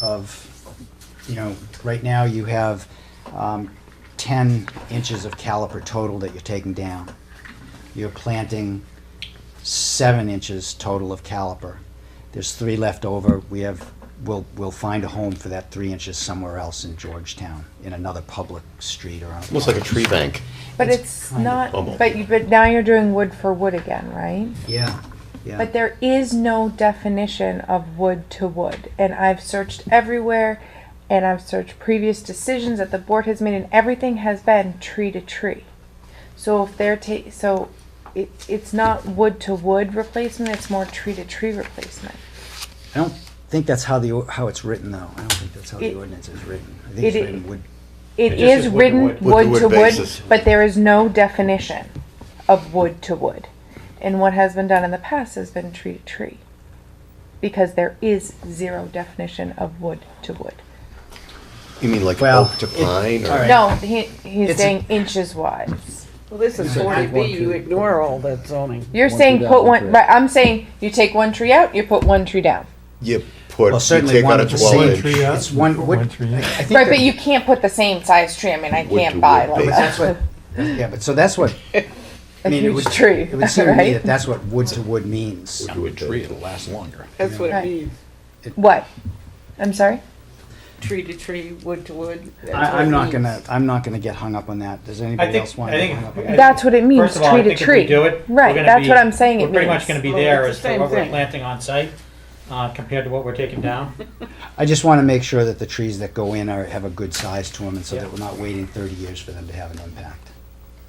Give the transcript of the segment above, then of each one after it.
of, you know, right now you have um, 10 inches of caliper total that you're taking down. You're planting seven inches total of caliper. There's three left over. We have, we'll, we'll find a home for that three inches somewhere else in Georgetown, in another public street or on. Almost like a tree bank. But It's it's kind of not, bubble. but you, but now you're doing wood for wood again, right? Yeah, yeah. But there is no definition of wood to wood, and I've searched everywhere, and I've searched previous decisions that the board has made, and everything has been tree to tree. So if they're ta- so it, it's not wood to wood replacement, it's more tree to tree replacement. I don't think that's how the, o- how it's written though. I don't think that's how the It- ordinance is written. I think it's it- written would, It just is is wood to written Wood wood. to wood wood to wood, basis. but there is no definition of wood to wood. And what has been done in the past has been tree to tree. Because there is zero definition of wood to wood. You mean like Well, oak to it- pine all or? right. No, he, he's It's saying inches wise. Well, this is said forty take one, B, two. you ignore all that zoning. You're saying put one, right, I'm saying you take one tree out, you put one tree down. You put, well, you certainly take one out a of the twelve same. uh, inch. out, It's one, put would- one tree in. I- I think Right, that- but you can't put the same size tree, I mean, I Wood to can't wood buy like basis. That's a, what, yeah, but so that's what, I a mean, it huge would, tree, it would seem to me that right? that's what wood to wood means. Do a tree. That's what Right. it means, What? I'm sorry? tree to tree, wood to wood. that's what I, it I'm not means. gonna, I'm not gonna get hung up on that. Does anybody think- else want I to get think- hung up on I- that? That's what it means, First of all, tree I to think if we tree. do it. we're Right, gonna that's be- what I'm saying it means. We're pretty much gonna be Well, there it's the as to same what we're thing. planting on site, uh, compared to what we're taking down. I just want to make sure that the trees that go in are, have a good size to them and so that we're not waiting thirty years for them to have an impact.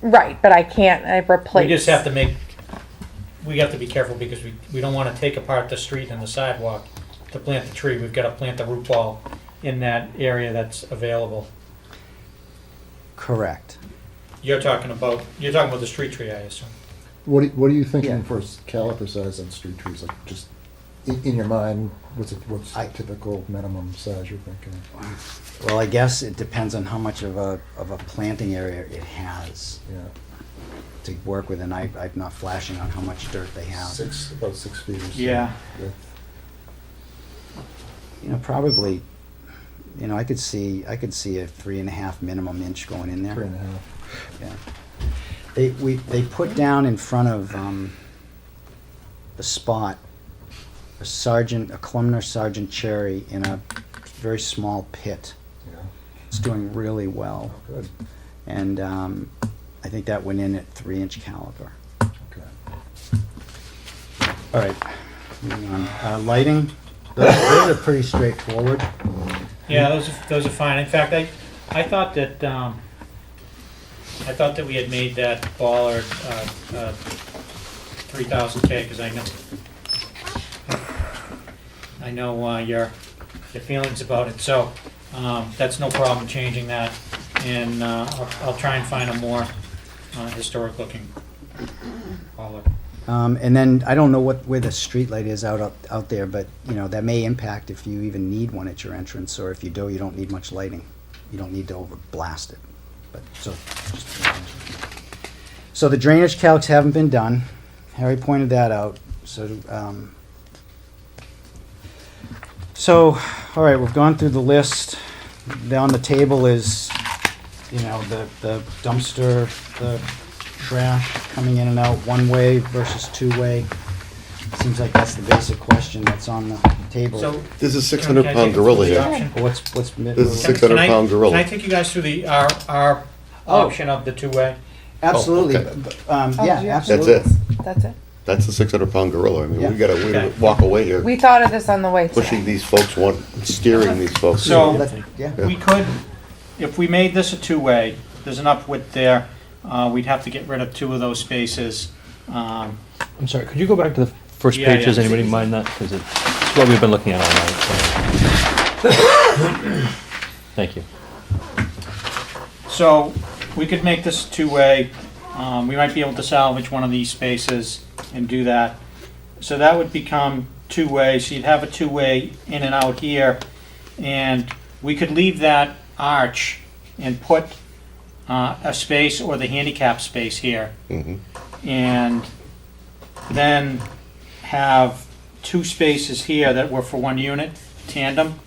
Right, but I can't, I replace. We just have to make, we have to be careful because we, we don't wanna take apart the street and the sidewalk to plant the tree. We've gotta plant the root ball in that area that's available. Correct. You're talking about, you're talking about the street tree, I assume. What, do- what are you thinking Yeah. for s- caliper size on street trees? Like just in, in your mind, what's a, what's I- a typical minimum size you're thinking? Well, I guess it depends on how much of a, of a planting area it has Yeah, to work with and I, I'm not flashing on how much dirt they have. six about six feet. Or so. Yeah. You know, probably, you know, I could see, I could see a three and a half minimum inch going in there. three and a half. Yeah. They, we, they put down in front of, um, the spot, a sergeant, a columnar sergeant cherry in a very small pit. Yeah, It's doing really well. good. And, um, I think that went in at three inch caliber. Okay. All right. moving on. Uh, lighting, those, those are pretty straightforward. Yeah, those are, those are fine. In fact, I, I thought that, um, I thought that we had made that baller, uh, uh, three thousand K, because I know, I know, uh, your, your feelings about it, so, um, that's no problem changing that. And, uh, I'll, I'll try and find a more, uh, historic looking baller. Um, and then I don't know what where the streetlight is out, out out there, but you know that may impact if you even need one at your entrance, or if you do, you don't need much lighting. You don't need to over blast it. But so, so the drainage calcs haven't been done. Harry pointed that out. So, um, so all right, we've gone through the list. Down the table is, you know, the the dumpster, the trash coming in and out one-way versus two-way? Seems like that's the basic question that's on the table. So. There's a six can I hundred take pound it gorilla through the here. option? What's, what's, mi- This is Can- six- 600 can I- pound gorilla. Can I take you guys through the, our, our Oh. option of the two-way? absolutely, Oh, okay. b- b- um, Oh, yeah, yeah. That's absolutely. it. That's it. That's a six hundred pound gorilla. I mean, Yeah. we gotta, we gotta Okay. walk away here, We thought of this on the way pushing today. these folks, one, steering these folks. So- That- Yeah, We could, if we made this a two-way, there's an upwit there, uh, we'd have to get rid of two of those spaces. Um, I'm sorry, could you go back to the first Yeah, page? Does yeah. anybody mind that? Because it's what we've been looking at all night. so. Thank you. So, we could make this two-way, um, we might be able to salvage one of these spaces and do that. So that would become two-way, so you'd have a two-way in and out here, and we could leave that arch and put uh, a space or the handicap space here. Mhm. and then have two spaces here that were for one unit, tandem,